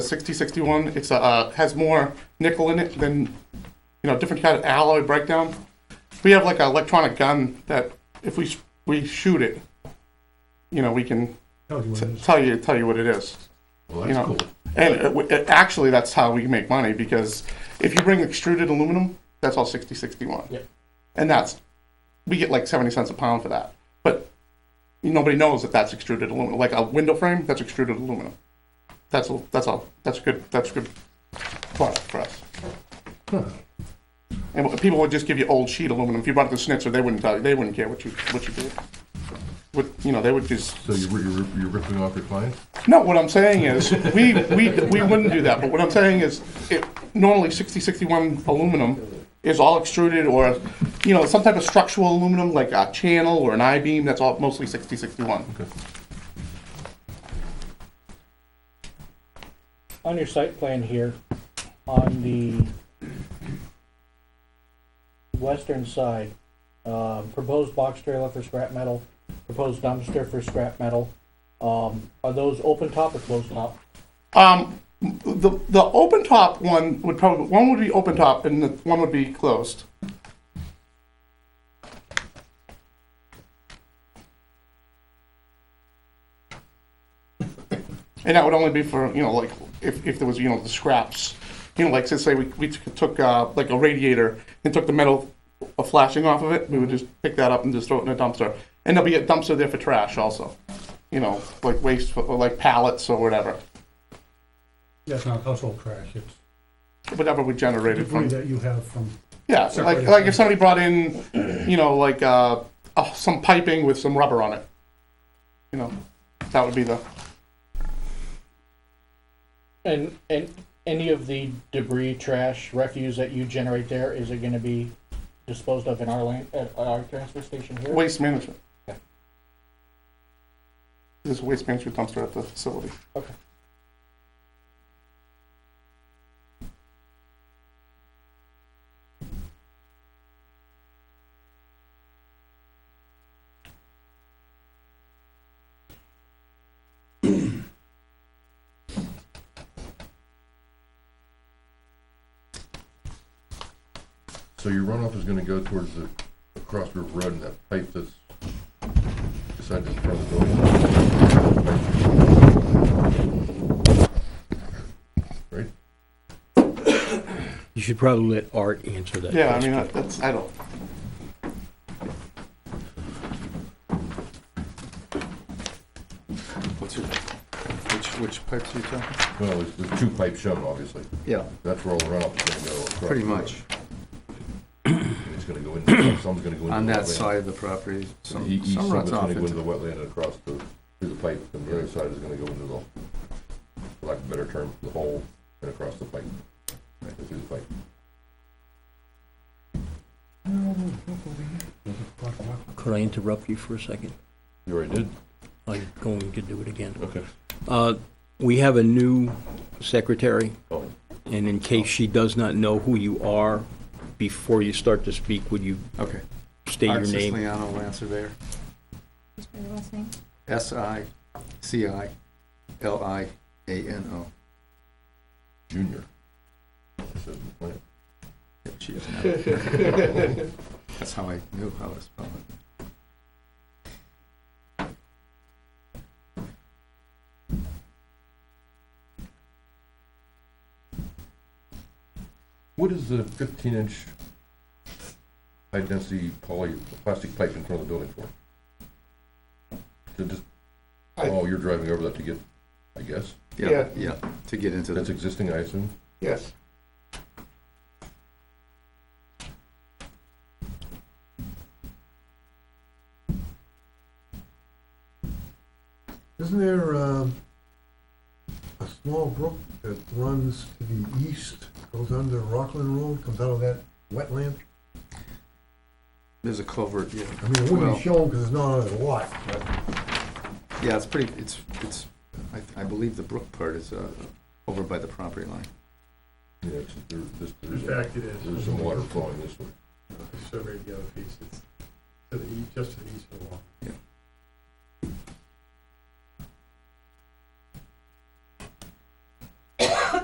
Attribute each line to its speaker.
Speaker 1: 6061, it's, a, uh, has more nickel in it than, you know, different kind of alloy breakdown. We have like an electronic gun that if we, sh- we shoot it, you know, we can
Speaker 2: Tell you what
Speaker 1: t-
Speaker 2: it is.
Speaker 1: tell you, tell you what it is.
Speaker 3: Well,
Speaker 1: You
Speaker 3: that's
Speaker 1: know,
Speaker 3: cool.
Speaker 1: And uh, w- uh, actually, that's how we make money because if you bring extruded aluminum, that's all 6061.
Speaker 2: Yeah.
Speaker 1: And that's, we get like 70 cents a pound for that. But nobody knows that that's extruded aluminum. Like a window frame, that's extruded aluminum. That's all, that's all, that's good, that's good product for us. And people would just give you old sheet aluminum. If you bought it to Schnitzer, they wouldn't tell you, they wouldn't care what you, what you did. Would, you know, they would just
Speaker 3: So you're, you're, you're ripping off your clients?
Speaker 1: no, what I'm saying is, we, we, we wouldn't do that, but what I'm saying is, it, normally sixty, sixty-one aluminum is all extruded or, you know, some type of structural aluminum, like a channel or an I-beam, that's all mostly sixty, sixty-one.
Speaker 4: On your site plan here, on the western side, um, proposed box trailer for scrap metal, proposed dumpster for scrap metal, um, are those open top or closed top?
Speaker 1: Um, the, the open top one would probably, one would be open top and the one would be closed. And that would only be for, you know, like, if, if there was, you know, the scraps, you know, like, say, say we, we took, took, uh, like a radiator and took the metal uh, flashing off of it, we would just pick that up and just throw it in a dumpster. And there'll be a dumpster there for trash also, you know, like waste, or like pallets or whatever.
Speaker 2: That's not household trash, it's
Speaker 1: whatever we generated
Speaker 2: debris
Speaker 1: from.
Speaker 2: that you have from,
Speaker 1: Yeah, like,
Speaker 2: Separated
Speaker 1: like if
Speaker 2: from-
Speaker 1: somebody brought in, you know, like, uh, oh, some piping with some rubber on it. You know, that would be the,
Speaker 4: And, and any of the debris, trash, refuse that you generate there, is it gonna be disposed of in our land, at our transfer station here?
Speaker 1: waste management. There's a waste management dumpster at the facility.
Speaker 4: Okay.
Speaker 3: So your runoff is gonna go towards the, across River Road and that pipe that's beside this front door. Right?
Speaker 5: You should probably let Art answer that.
Speaker 1: Yeah, I mean, that- that's, I don't,
Speaker 6: What's your, which, which pipes are you talking?
Speaker 3: Well, there's, there's two pipes shown, obviously.
Speaker 6: Yeah,
Speaker 3: That's where all the runoff is gonna go. across
Speaker 6: pretty
Speaker 3: the road.
Speaker 6: much,
Speaker 3: And It's gonna go in, some's gonna go into.
Speaker 6: on
Speaker 3: the
Speaker 6: that
Speaker 3: wetland.
Speaker 6: side of the property,
Speaker 3: The
Speaker 6: some,
Speaker 3: east
Speaker 6: some
Speaker 3: side is
Speaker 6: runs off
Speaker 3: gonna go into
Speaker 6: into.
Speaker 3: the wetland and across the, through the pipe, and the other side is gonna go into the, for lack of a better term, the hole and across the pipe. and Through the pipe.
Speaker 5: Could I interrupt you for a second?
Speaker 3: You already did?
Speaker 5: I'm going to do it again.
Speaker 3: Okay.
Speaker 5: Uh, We have a new secretary,
Speaker 3: Oh,
Speaker 5: and in case she does not know who you are, before you start to speak, would you
Speaker 6: Okay.
Speaker 5: state your
Speaker 6: Art
Speaker 5: name?
Speaker 6: Siciliano, land surveyor,
Speaker 7: What's my last name?
Speaker 6: S I C I L I A N O.
Speaker 3: junior. It says in the plan.
Speaker 6: Yep, she is now. That's how I knew how to spell it.
Speaker 3: What is the fifteen inch high density poly, plastic pipe in front of the building for? To just,
Speaker 1: I-
Speaker 3: oh, you're driving over that to get, I guess,
Speaker 6: Yeah, yeah, to get into
Speaker 3: that's
Speaker 6: the,
Speaker 3: existing, I assume?
Speaker 1: yes.
Speaker 8: Isn't there um, a small brook that runs to the east, goes under Rockland Road, comes out of that wetland?
Speaker 6: there's a culvert, yeah.
Speaker 8: I mean, it wouldn't
Speaker 6: Well-
Speaker 8: be shown because it's not on the lot, but
Speaker 6: Yeah, it's pretty, it's, it's, I, I believe the brook part is, uh, over by the property line.
Speaker 3: Yeah, it's- there, this,
Speaker 2: in
Speaker 3: there's,
Speaker 2: fact, it is.
Speaker 3: there's some water flowing this way.
Speaker 2: Survey e, the other piece, it's to the, east- just to the east of the wall.